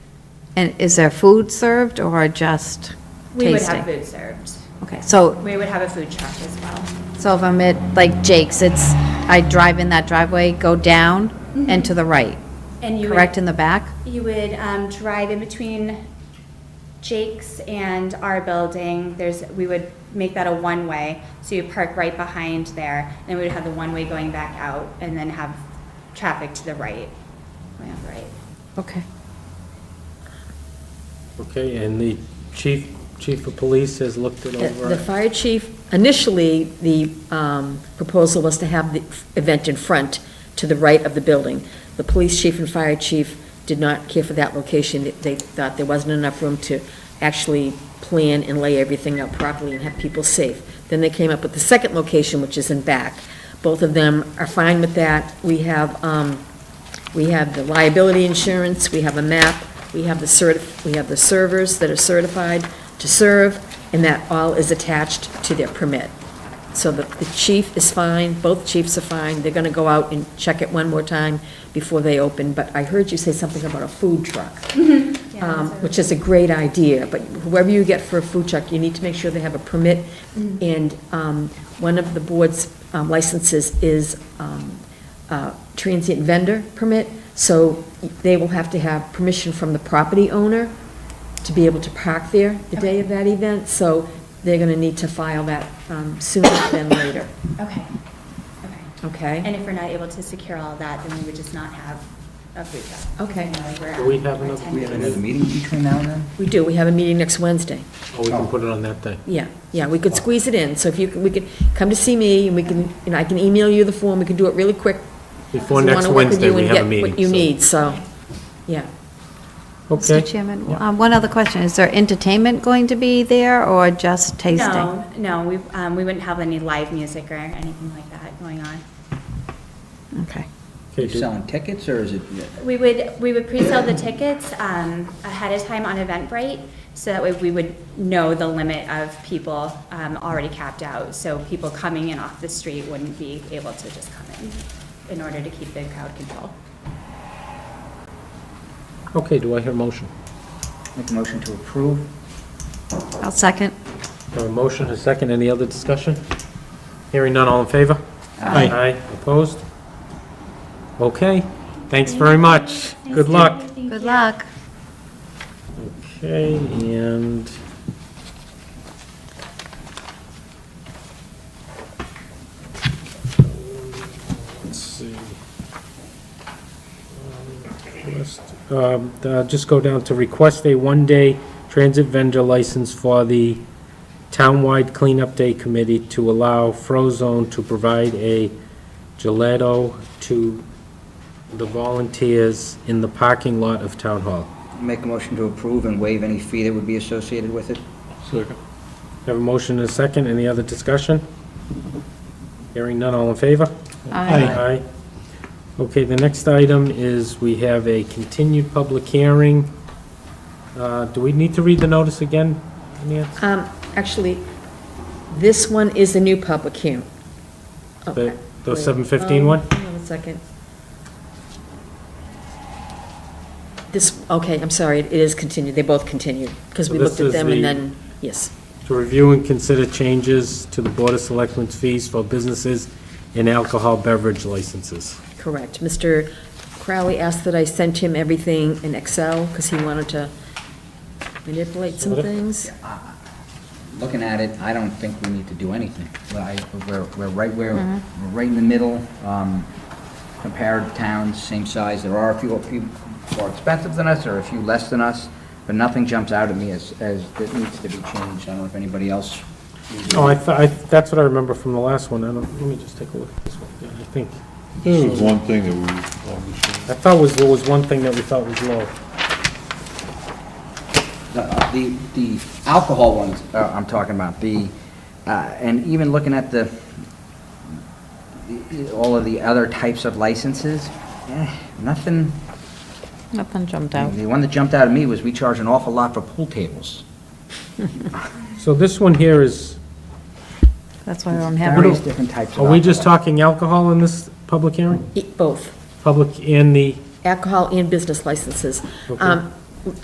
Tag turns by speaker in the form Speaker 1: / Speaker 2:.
Speaker 1: And is there food served or just
Speaker 2: We would have
Speaker 1: tasting?
Speaker 2: food served.
Speaker 1: Okay, so,
Speaker 2: We would have a food truck as well.
Speaker 1: so if I'm at, like Jake's, it's, I drive in that driveway, go down and to the right,
Speaker 2: And Mm-hmm. you would-
Speaker 1: correct in the back?
Speaker 2: You would um, drive in between Jake's and our building. There's, we would make that a one-way, so you park right behind there, and we would have the one-way going back out, and then have traffic to the right, going out the right.
Speaker 1: Okay.
Speaker 3: Okay, and the chief, chief of police has looked it
Speaker 4: The- The
Speaker 3: over.
Speaker 4: fire chief, initially, the um, proposal was to have the event in front, to the right of the building. The police chief and fire chief did not care for that location. They thought there wasn't enough room to actually plan and lay everything out properly and have people safe. Then they came up with the second location, which is in back. Both of them are fine with that. We have, um, we have the liability insurance, we have a map, we have the certif, we have the servers that are certified to serve, and that all is attached to their permit. So the, the chief is fine, both chiefs are fine, they're gonna go out and check it one more time before they open, but I heard you say something about a food truck. Um, which is a great idea, but whoever you get for a food truck, you need to make sure they have a permit. And, um, one of the board's um, licenses is, um, uh, transient vendor permit, so they will have to have permission from the property owner to be able to park there the day of that event, so they're gonna need to file that, um, sooner than later,
Speaker 2: Okay, okay.
Speaker 4: okay?
Speaker 2: And if we're not able to secure all that, then we would just not have a food truck.
Speaker 4: Okay.
Speaker 2: You know, we're
Speaker 3: Do we
Speaker 2: at-
Speaker 3: have
Speaker 2: we're
Speaker 3: another-
Speaker 2: at
Speaker 5: We have
Speaker 2: 10.
Speaker 5: another meeting between now and then?
Speaker 4: We do, we have a meeting next Wednesday.
Speaker 3: Oh, we can put it on that day.
Speaker 4: Yeah, yeah, we could squeeze it in, so if you, we could, come to see me, and we can, and I can email you the form, we can do it really quick. 'cause
Speaker 3: Before
Speaker 4: we
Speaker 3: next
Speaker 4: wanna work with
Speaker 3: Wednesday,
Speaker 4: you
Speaker 3: we
Speaker 4: and
Speaker 3: have a
Speaker 4: get
Speaker 3: meeting.
Speaker 4: What you
Speaker 3: so-
Speaker 4: need, so, yeah.
Speaker 3: Okay.
Speaker 1: Mr. Chairman,
Speaker 3: Yeah.
Speaker 1: um, one other question. Is there entertainment going to be there or just tasting?
Speaker 2: No, no, we, um, we wouldn't have any live music or anything like that going on.
Speaker 1: Okay.
Speaker 3: Okay,
Speaker 5: You
Speaker 3: do-
Speaker 5: selling tickets, or is it,
Speaker 2: We would, we would pre-sell the tickets um, ahead of time on Eventbrite, so that way we would know the limit of people um, already capped out, so people coming in off the street wouldn't be able to just come in, in order to keep the crowd control.
Speaker 3: Okay, do I hear a motion?
Speaker 5: make a motion to approve?
Speaker 1: I'll second.
Speaker 3: Have a motion, a second, any other discussion? Hearing none, all in favor?
Speaker 5: Aye.
Speaker 3: Aye, opposed? Okay, thanks very much. Good luck.
Speaker 1: Good luck.
Speaker 3: Okay, and... Let's see. Request, um, uh, Just go down to request a one-day transit vendor license for the townwide cleanup day committee to allow Frozone to provide a gelato to the volunteers in the parking lot of Town Hall.
Speaker 5: Make a motion to approve and waive any fee that would be associated with it?
Speaker 3: Have a motion and a second, any other discussion? Hearing none, all in favor?
Speaker 1: Aye.
Speaker 3: Aye. Okay, the next item is we have a continued public hearing. Uh, Do we need to read the notice again, Nancy?
Speaker 4: Um, actually, this one is a new public hearing. Oh,
Speaker 3: The the
Speaker 4: wait.
Speaker 3: 7:15
Speaker 4: Um,
Speaker 3: one?
Speaker 4: Hang on a second. This, okay, I'm sorry, it is continued, they both continued, because
Speaker 3: So
Speaker 4: we
Speaker 3: this
Speaker 4: looked at
Speaker 3: is
Speaker 4: them
Speaker 3: the-
Speaker 4: and then, yes.
Speaker 3: To review and consider changes to the Board of Selectmen's fees for businesses and alcohol beverage licenses.
Speaker 4: Correct. Mr. Crowley asked that I sent him everything in Excel, because he wanted to manipulate some
Speaker 3: Sort of.
Speaker 4: things.
Speaker 5: Looking at it, I don't think we need to do anything. I- We're, we're right where, we're right in the middle, um, compared towns, same size. There are a few, a few more expensive than us, or a few less than us, but nothing jumps out at me as, as that needs to be changed. I don't know if anybody else
Speaker 3: Oh, I, thought- I- that's what I remember from the last one, I don't, let me just take a look at this one, Yeah, I think.
Speaker 6: There was one thing that we, obviously,
Speaker 3: I thought was, there was one thing that we thought was low.
Speaker 5: The- uh, The, the alcohol ones uh, I'm talking about, the, uh, and even looking at the, the- all of the other types of licenses, eh, nothing,
Speaker 1: Nothing jumped out.
Speaker 5: the one that jumped out at me was we charge an awful lot for pool tables.
Speaker 3: So this one here is,
Speaker 1: That's why I don't have
Speaker 5: Various
Speaker 1: it.
Speaker 5: different types of
Speaker 3: are we just
Speaker 5: alcohol.
Speaker 3: talking alcohol in this public hearing?
Speaker 4: E- Both,
Speaker 3: Public in the,
Speaker 4: alcohol and business licenses.
Speaker 3: Okay.
Speaker 4: Um,